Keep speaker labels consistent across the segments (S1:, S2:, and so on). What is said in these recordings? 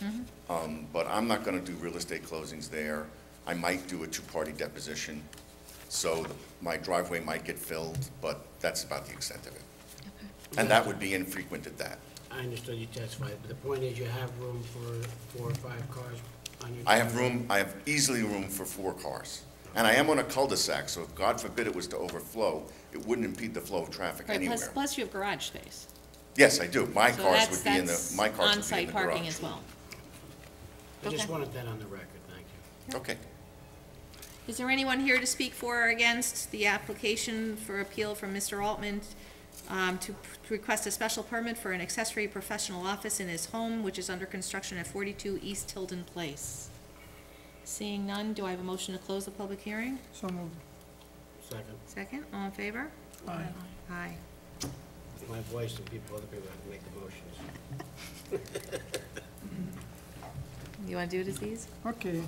S1: Mm-hmm.
S2: Um, But I'm not going to do real estate closings there. I might do a two-party deposition, so the- my driveway might get filled, but that's about the extent of it. And that would be infrequent at that.
S3: I understood you testified, but the point is you have room for four or five cars on your.
S2: I have room, I have easily room for four cars. And I am on a cul-de-sac, so if God forbid it was to overflow, it wouldn't impede the flow of traffic
S1: Right, plus,
S2: anywhere.
S1: plus you have garage space.
S2: Yes, I do. My
S1: So
S2: cars
S1: that's-
S2: would be in the,
S1: that's
S2: my cars would be in
S1: on-site
S2: the
S1: parking
S2: garage.
S1: as well.
S3: I just
S1: okay.
S3: wanted that on the record, thank you.
S2: Okay.
S1: Is there anyone here to speak for or against the application for appeal from Mr. Altman um, to p- request a special permit for an accessory professional office in his home, which is under construction at forty-two East Tilden Place? Seeing none, do I have a motion to close the public hearing?
S4: So moved.
S3: Second,
S1: Second, all in favor?
S4: Aye.
S1: Aye.
S3: it's my voice and people, other people have to make the motions.
S1: You wanna do it, Aziz?
S4: Okay.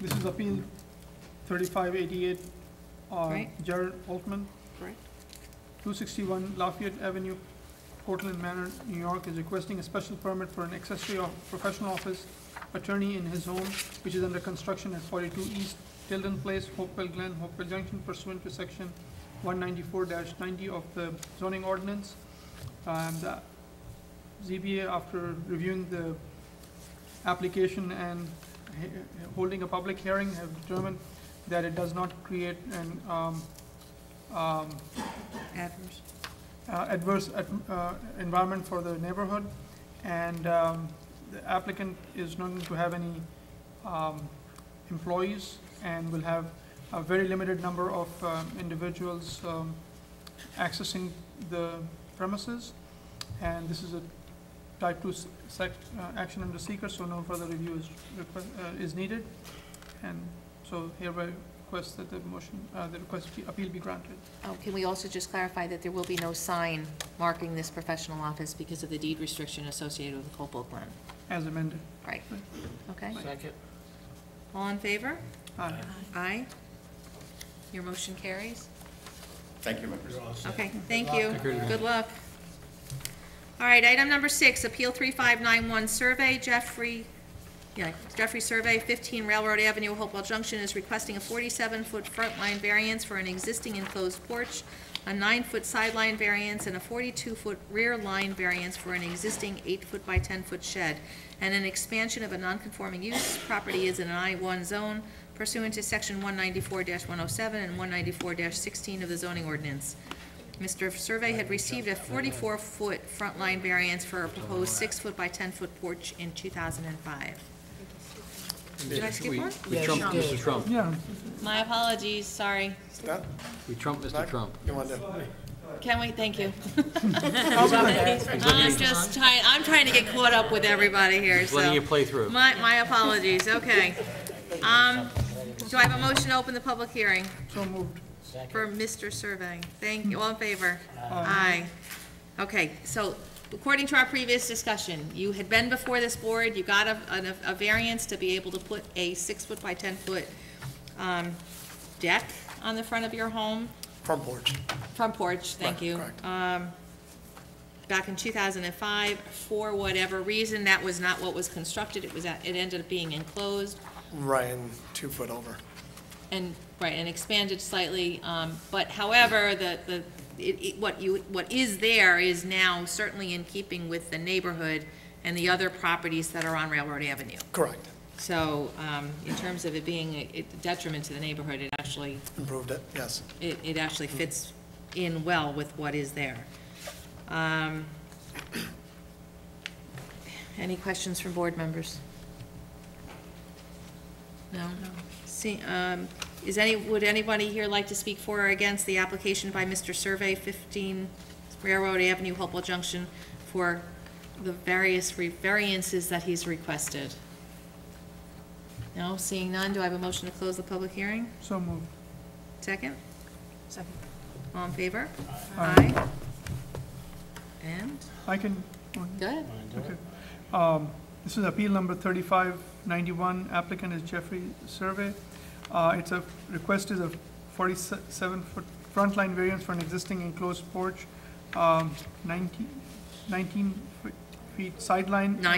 S4: This is appeal thirty-five eighty-eight, uh,
S1: Right.
S4: Jared Altman,
S1: Correct.
S4: two sixty-one Lafayette Avenue, Portland Manor, New York, is requesting a special permit for an accessory of professional office attorney in his home, which is under construction at forty-two East Tilden Place, Hopewell Glen, Hopewell Junction pursuant to section one ninety-four ninety of the zoning ordinance. Um, the ZBA, after reviewing the application and he- holding a public hearing, have determined that it does not create an, um, um,
S1: Adverse.
S4: uh, adverse at- uh, environment for the neighborhood, and um, the applicant is not going to have any um, employees, and will have a very limited number of um, individuals um, accessing the premises, and this is a type two sec, uh, action under seeker, so no further review is request, uh, is needed, and so hereby request that the motion, uh, the request be- appeal be granted.
S1: Oh, can we also just clarify that there will be no sign marking this professional office because of the deed restriction associated with Hopewell Glen?
S4: As amended.
S1: Right, okay.
S3: Second,
S1: All in favor?
S4: Aye.
S1: Aye. Your motion carries?
S2: Thank you, members.
S3: you're all set.
S1: Okay, thank you. Good luck. All right, item number six, Appeal 3591 Survey, Jeffrey, yeah, Jeffrey Survey, 15 Railroad Avenue, Hopewell Junction, is requesting a 47-foot front line variance for an existing enclosed porch, a 9-foot sideline variance, and a 42-foot rear line variance for an existing 8-foot by 10-foot shed, and an expansion of a non-conforming use. Property is in an I-1 zone pursuant to Section 194-107 and 194-16 of the zoning ordinance. Mr. Survey had received a 44-foot front line variance for a proposed 6-foot by 10-foot porch in 2005. Did I skip
S5: We-
S1: one?
S5: We trumped
S3: you
S5: Mr.
S3: did.
S5: Trump.
S4: Yeah,
S1: My apologies, sorry.
S5: We trumped Mr. Trump.
S1: Can we, thank you. I'm just trying, I'm trying to get caught up with everybody here,
S5: Just
S1: so.
S5: letting you play through.
S1: My, my apologies, okay. Um, do I have a motion to open the public hearing
S4: so moved.
S1: for Mr. Survey? Thank you, all in favor? Aye. Okay, so according to our previous discussion, you had been before this board, you got a, an- a variance to be able to put a six-foot by ten-foot, um, deck on the front of your home.
S6: Front porch.
S1: Front porch, thank you. Um, Back in 2005, for whatever reason, that was not what was constructed, it was, at- it ended up being enclosed
S6: Ryan, two foot over.
S1: and, right, and expanded slightly. um, But however, the, the, it- it- what you, what is there is now certainly in keeping with the neighborhood and the other properties that are on Railroad Avenue.
S6: Correct.
S1: So um, in terms of it being a a detriment to the neighborhood, it actually
S6: Improved it, yes.
S1: it, it actually fits in well with what is there. Um, Any questions from board members? No? See, um, is any, would anybody here like to speak for or against the application by Mr. Survey, 15 Railroad Avenue, Hopewell Junction, for the various re- variances that he's requested? No, seeing none, do I have a motion to close the public hearing?
S4: So moved.
S1: Second? Second. All in favor?
S4: Aye.
S1: And,
S4: I can,
S1: good.
S4: okay. Um, This is appeal number thirty-five ninety-one, applicant is Jeffrey Survey. Uh, it's a, request is a forty-seven foot front line variance for an existing enclosed porch, um, 19 19 foot
S7: feet sideline.
S4: Nine